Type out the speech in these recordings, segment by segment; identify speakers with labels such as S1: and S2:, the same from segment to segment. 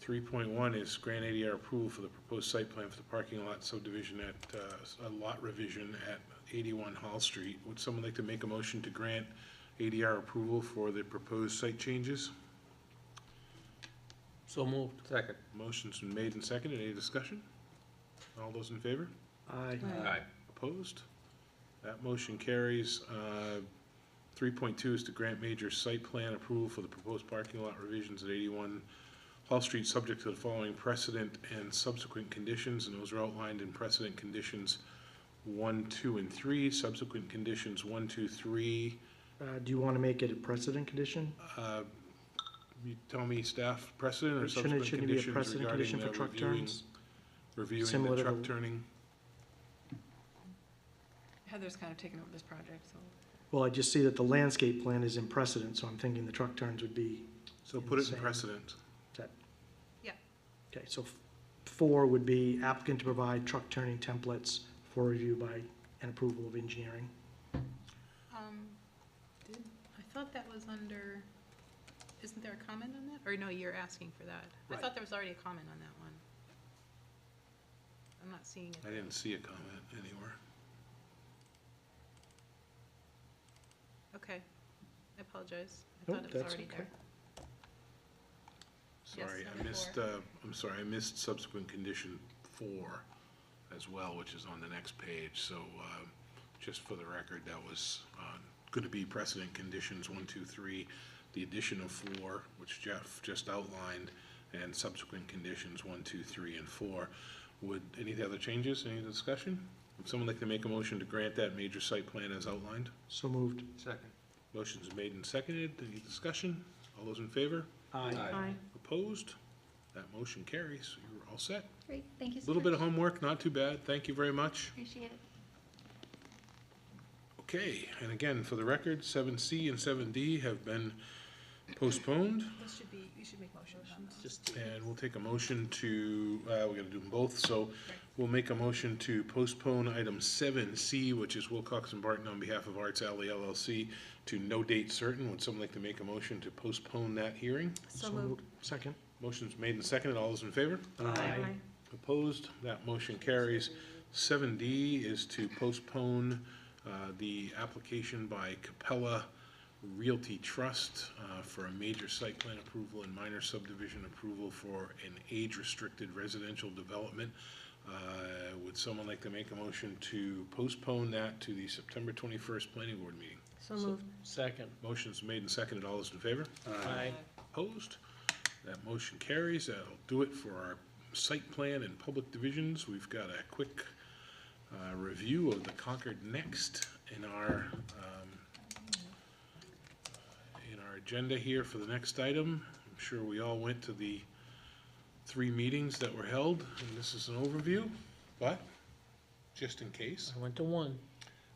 S1: Three point one is grant ADR approval for the proposed site plan for the parking lot subdivision at, uh, a lot revision at eighty-one Hall Street. Would someone like to make a motion to grant ADR approval for the proposed site changes?
S2: So moved. Second.
S1: Motion's been made and seconded. Any discussion? All those in favor?
S2: Aye.
S3: Aye.
S1: Opposed? That motion carries. Uh, Three point two is to grant major site plan approval for the proposed parking lot revisions at eighty-one Hall Street, subject to the following precedent and subsequent conditions, and those are outlined in precedent conditions one, two, and three, subsequent conditions one, two, three.
S4: Uh, do you want to make it a precedent condition?
S1: Uh, You tell me, staff, precedent or
S4: Shouldn't
S1: subsequent
S4: it, shouldn't it be a
S1: conditions
S4: precedent
S1: regarding
S4: condition
S1: the
S4: for truck
S1: reviewing,
S4: turns?
S1: reviewing
S4: Similar
S1: the
S4: to
S1: truck
S4: the-
S1: turning?
S3: Heather's kind of taken over this project, so.
S4: Well, I just see that the landscape plan is in precedent, so I'm thinking the truck turns would be,
S1: So put it in
S4: Same.
S1: precedent.
S4: that?
S3: Yeah.
S4: Okay, so f- four would be applicant to provide truck turning templates for review by and approval of engineering.
S3: Um, did, I thought that was under, isn't there a comment on that? Or no, you're asking for that. I
S4: Right.
S3: thought there was already a comment on that one. I'm not seeing
S1: I
S3: it.
S1: didn't see a comment anywhere.
S3: Okay. I apologize. I
S4: Nope,
S3: thought it was
S4: that's
S3: already
S4: okay.
S3: there. Yes,
S1: Sorry, I
S3: number
S1: missed, uh, I'm sorry, I missed subsequent condition four as well, which is on the next page. So um, just for the record, that was going to be precedent conditions one, two, three, the addition of four, which Jeff just outlined, and subsequent conditions one, two, three, and four. Would, any other changes, any discussion? Would someone like to make a motion to grant that major site plan as outlined?
S4: So moved.
S2: Second.
S1: Motion's made and seconded. Any discussion? All those in favor?
S2: Aye.
S1: Opposed? That motion carries. You're all set.
S5: Great, thank you
S1: A
S5: so much.
S1: Little bit of homework, not too bad. Thank you very much.
S5: Appreciate it.
S1: Okay, and again, for the record, seven C and seven D have been postponed,
S3: This should be, you should make motions on those.
S2: Just,
S1: and we'll take a motion to, uh, we gotta do them both, so we'll make a motion to postpone item seven C, which is Wilcox and Barton on behalf of Arts Alley LLC, to no date certain. Would someone like to make a motion to postpone that hearing?
S3: So moved.
S4: Second.
S1: Motion's made and seconded. All those in favor? Opposed, that motion carries. Seven D is to postpone uh, the application by Capella Realty Trust uh, for a major site plan approval and minor subdivision approval for an age-restricted residential development. Uh, Would someone like to make a motion to postpone that to the September twenty-first planning board meeting?
S5: So moved.
S2: second.
S1: Motion's made and seconded. All those in favor?
S2: Aye.
S1: Opposed? That motion carries. That'll do it for our site plan and public divisions. We've got a quick uh, review of the Concord Next in our, um, in our agenda here for the next item. I'm sure we all went to the three meetings that were held, and this is an overview, but just in case,
S2: I went to one.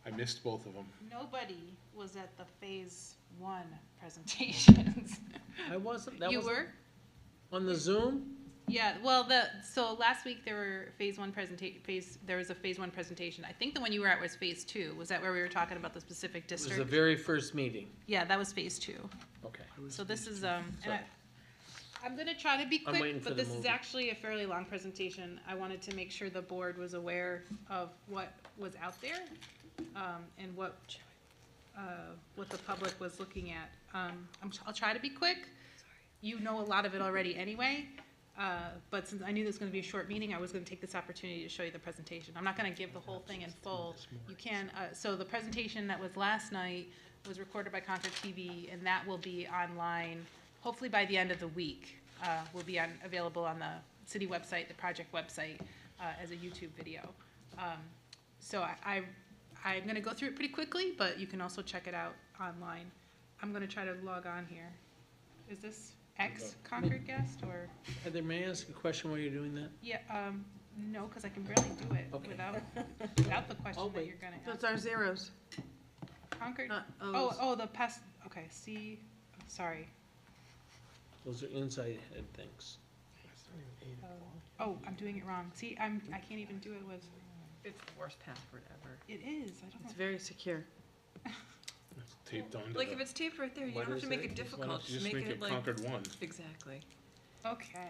S1: I missed both of them.
S3: Nobody was at the phase one presentations.
S2: I wasn't, that
S3: You
S2: was
S3: were?
S2: on the Zoom?
S3: Yeah, well, the, so last week there were phase one presentation, phase, there was a phase one presentation. I think the one you were at was phase two. Was that where we were talking about the specific
S2: It was the
S3: district?
S2: very first meeting.
S3: Yeah, that was phase two.
S2: Okay.
S3: So this is, um, and I,
S2: Sorry.
S3: I'm gonna try to be
S2: I'm waiting
S3: quick,
S2: for
S3: but
S2: the
S3: this is
S2: movie.
S3: actually a fairly long presentation. I wanted to make sure the board was aware of what was out there, um, and what, uh, what the public was looking at. Um, I'm, I'll try to be quick. You know a lot of it already anyway, uh, but since I knew this was gonna be a short meeting, I was gonna take this opportunity to show you the presentation. I'm not gonna give the whole thing in full. You can, uh, so the presentation that was last night was recorded by Concord TV, and that will be online, hopefully by the end of the week. Uh, will be on, available on the city website, the project website, uh, as a YouTube video. Um, so I, I, I'm gonna go through it pretty quickly, but you can also check it out online. I'm gonna try to log on here. Is this ex Concord guest or,
S2: Heather, may I ask a question while you're doing that?
S3: yeah, um, no, cause I can barely do it
S2: Okay.
S3: without, without the question that
S2: wait.
S3: you're gonna ask.
S6: That's our zeros,
S3: Concord,
S6: not
S3: oh,
S6: O's.
S3: oh, the past, okay, see, sorry.
S2: Those are inside head things.
S3: Oh, I'm doing it wrong. See, I'm, I can't even do it with,
S6: It's the worst password ever.
S3: it is, I don't know.
S6: It's very secure.
S1: Taped onto
S6: Like, if
S1: the,
S6: it's taped right there, you
S2: Why
S6: don't have
S2: does
S6: to make
S2: that-
S6: it
S2: just why
S6: difficult,
S1: just
S6: just make it like,
S1: Concord one.
S6: exactly.
S3: Okay.